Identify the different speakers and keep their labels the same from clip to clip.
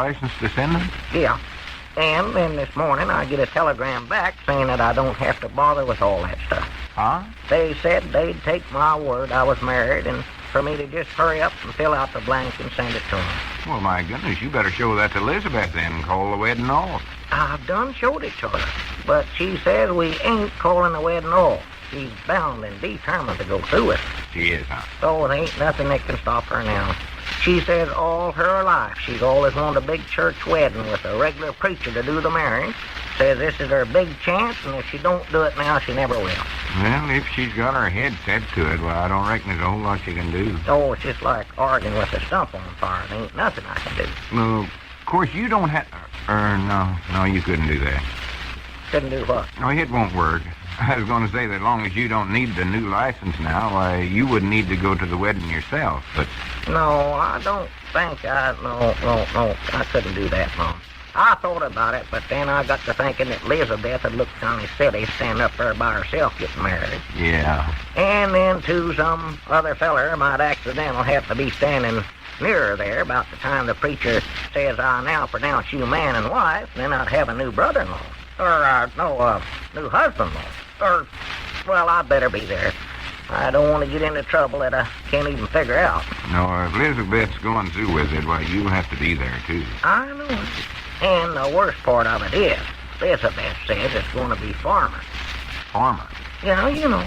Speaker 1: License to send them?
Speaker 2: Yeah. And then this morning I get a telegram back saying that I don't have to bother with all that stuff.
Speaker 1: Huh?
Speaker 2: They said they'd take my word I was married and for me to just hurry up and fill out the blank and send it to them.
Speaker 1: Well, my goodness, you better show that to Elizabeth then. Call the wedding off.
Speaker 2: I've done showed it to her, but she says we ain't calling the wedding off. She's bound and determined to go through it,
Speaker 1: She is, huh?
Speaker 2: so there ain't nothing that can stop her now. She says all her life she's always wanted a big church wedding with a regular preacher to do the marrying. Says this is her big chance, and if she don't do it now, she never will.
Speaker 1: Well, if she's got her head set to it, well, I don't reckon there's a whole lot you can do.
Speaker 2: Oh, it's just like arguing with a stump on fire. There ain't nothing I can do.
Speaker 1: Well, of course, you don't have... Er, no. No, you couldn't do that.
Speaker 2: Couldn't do what?
Speaker 1: No, it won't work. I was going to say that as long as you don't need the new license now, why, you wouldn't need to go to the wedding yourself. But,
Speaker 2: No, I don't think I. No, no, no. I couldn't do that, Mom. I thought about it, but then I got to thinking that Elizabeth would look kind of silly standing up there by herself getting married.
Speaker 1: yeah.
Speaker 2: And then, too, some other feller might accidental have to be standing nearer there about the time the preacher says, I now pronounce you man and wife, then I'd have a new brother in law. Or, uh, no, uh, new husband in law. Or, well, I'd better be there. I don't want to get into trouble that I can't even figure out.
Speaker 1: No, if Elizabeth's going through with it, why, you'll have to be there, too.
Speaker 2: I know. it. And the worst part of it is, Elizabeth says it's going to be farming.
Speaker 1: Farmer.
Speaker 2: Yeah, you know,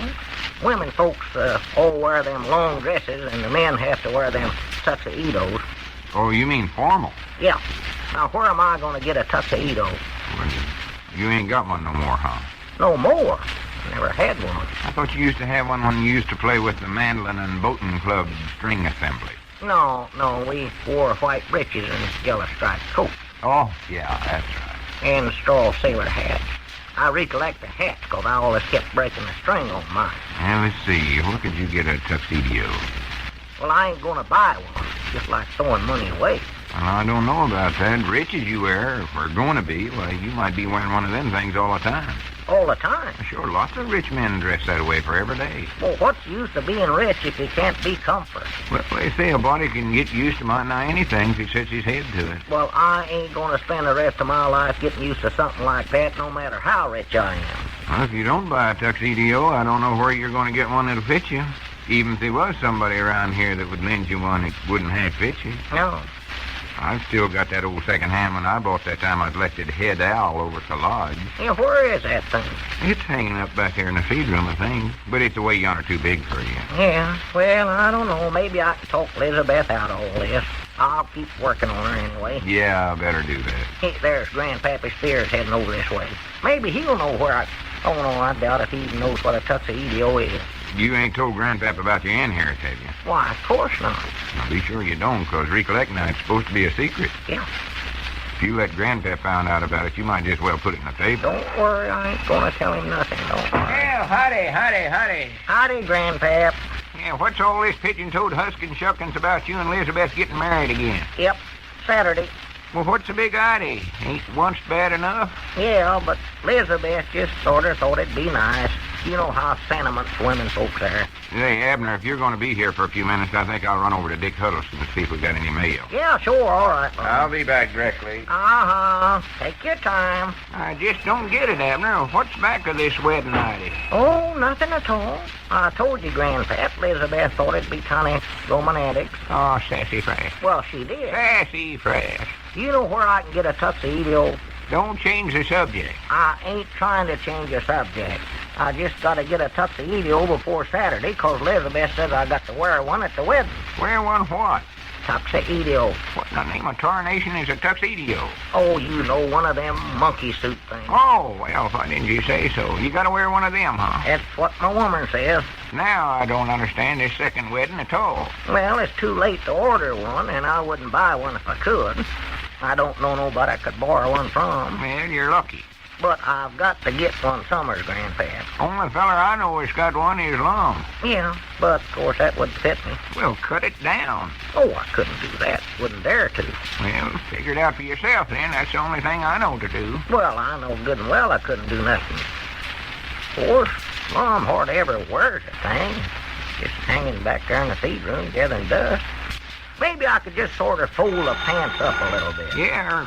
Speaker 2: women folks uh, all wear them long dresses, and the men have to wear them tuxedos.
Speaker 1: Oh, you mean formal?
Speaker 2: Yeah. Now, where am I going to get a tuxedo?
Speaker 1: Well, you ain't got one no more, huh?
Speaker 2: No more. I never had one.
Speaker 1: I thought you used to have one when you used to play with the mandolin and boating club string assembly.
Speaker 2: No, no, we wore white breeches and yellow striped coats
Speaker 1: Oh, yeah, that's right.
Speaker 2: and straw sailor hats. I recollect the hats 'cause I always kept breaking the string on mine.
Speaker 1: Now, let's see. Where could you get a tuxedo?
Speaker 2: Well, I ain't going to buy one. Just like throwing money away.
Speaker 1: Well, I don't know about that. Rich as you were, if we're going to be, why, you might be wearing one of them things all the time.
Speaker 2: All the time.
Speaker 1: Sure, lots of rich men dress that way for every day.
Speaker 2: Well, what's the use of being rich if you can't be comfort?
Speaker 1: Well, they say a body can get used to might nigh anything if he sets his head to it.
Speaker 2: Well, I ain't going to spend the rest of my life getting used to something like that, no matter how rich I am.
Speaker 1: Well, if you don't buy a tuxedo, I don't know where you're going to get one that'll fit you. Even if there was somebody around here that would lend you one, it wouldn't half fit you.
Speaker 2: No.
Speaker 1: I've still got that old second hand one I bought that time I elected head owl over at the lodge.
Speaker 2: Yeah, where is that thing?
Speaker 1: It's hanging up back there in the feed room, I think. But it's away yonder too big for you.
Speaker 2: Yeah, well, I don't know. Maybe I can talk Elizabeth out of all this. I'll keep working on her anyway.
Speaker 1: Yeah, I better do that.
Speaker 2: Hey, there's Grandpappy Spears heading over this way. Maybe he'll know where I... Oh, no, I doubt if he even knows what a tuxedo is.
Speaker 1: You ain't told Grandpap about your inheritance, have you?
Speaker 2: Why, of course not.
Speaker 1: Now, be sure you don't, 'cause recollect now, it's supposed to be a secret.
Speaker 2: Yeah.
Speaker 1: If you let Grandpap find out about it, you might just well put it in the paper.
Speaker 2: Don't worry, I ain't going to tell him nothing, don't worry.
Speaker 1: Well, howdy, howdy, howdy.
Speaker 2: Howdy, Grandpap.
Speaker 1: Yeah, what's all this pigeon-toed huskin' shuckins about you and Elizabeth getting married again?
Speaker 2: Yep, Saturday.
Speaker 1: Well, what's the big idea? Ain't once bad enough?
Speaker 2: Yeah, but Elizabeth just sort of thought it'd be nice. You know how sentimental women folks are.
Speaker 1: Hey, Abner, if you're going to be here for a few minutes, I think I'll run over to Dick Huddleston to see if we got any mail.
Speaker 2: Yeah, sure, all right. Mom.
Speaker 1: be back directly.
Speaker 2: Uh-huh. Take your time.
Speaker 1: I just don't get it, Abner. What's back of this wedding idea?
Speaker 2: Oh, nothing at all. I told you, Grandpap, Elizabeth thought it'd be kind of romantic.
Speaker 1: Oh, sassy fresh.
Speaker 2: Well, she did.
Speaker 1: Sassy fresh.
Speaker 2: You know where I can get a tuxedo?
Speaker 1: Don't change the subject.
Speaker 2: I ain't trying to change the subject. I just got to get a tuxedo before Saturday, 'cause Elizabeth says I got to wear one at the wedding.
Speaker 1: Wear one what?
Speaker 2: Tuxedo.
Speaker 1: What in the name of tarnation is a tuxedo?
Speaker 2: Oh, you know, one of them monkey suit things.
Speaker 1: Oh, well, why didn't you say so? You gotta wear one of them, huh?
Speaker 2: That's what my woman says.
Speaker 1: Now I don't understand this second wedding at all.
Speaker 2: Well, it's too late to order one, and I wouldn't buy one if I could. I don't know nobody I could borrow one from,
Speaker 1: Well, you're lucky.
Speaker 2: but I've got to get one summers, Grandpap.
Speaker 1: Only feller I know that's got one is long.
Speaker 2: Yeah, but of course that wouldn't fit me.
Speaker 1: Well, cut it down.
Speaker 2: Oh, I couldn't do that. Wouldn't dare to.
Speaker 1: Well, figure it out for yourself then. That's the only thing I know to do.
Speaker 2: Well, I know good and well I couldn't do nothing. Of course, Mom hardly ever wears a thing. Just hanging back there in the feed room gathering dust. Maybe I could just sort of fold the pants up a little bit.
Speaker 1: Yeah, or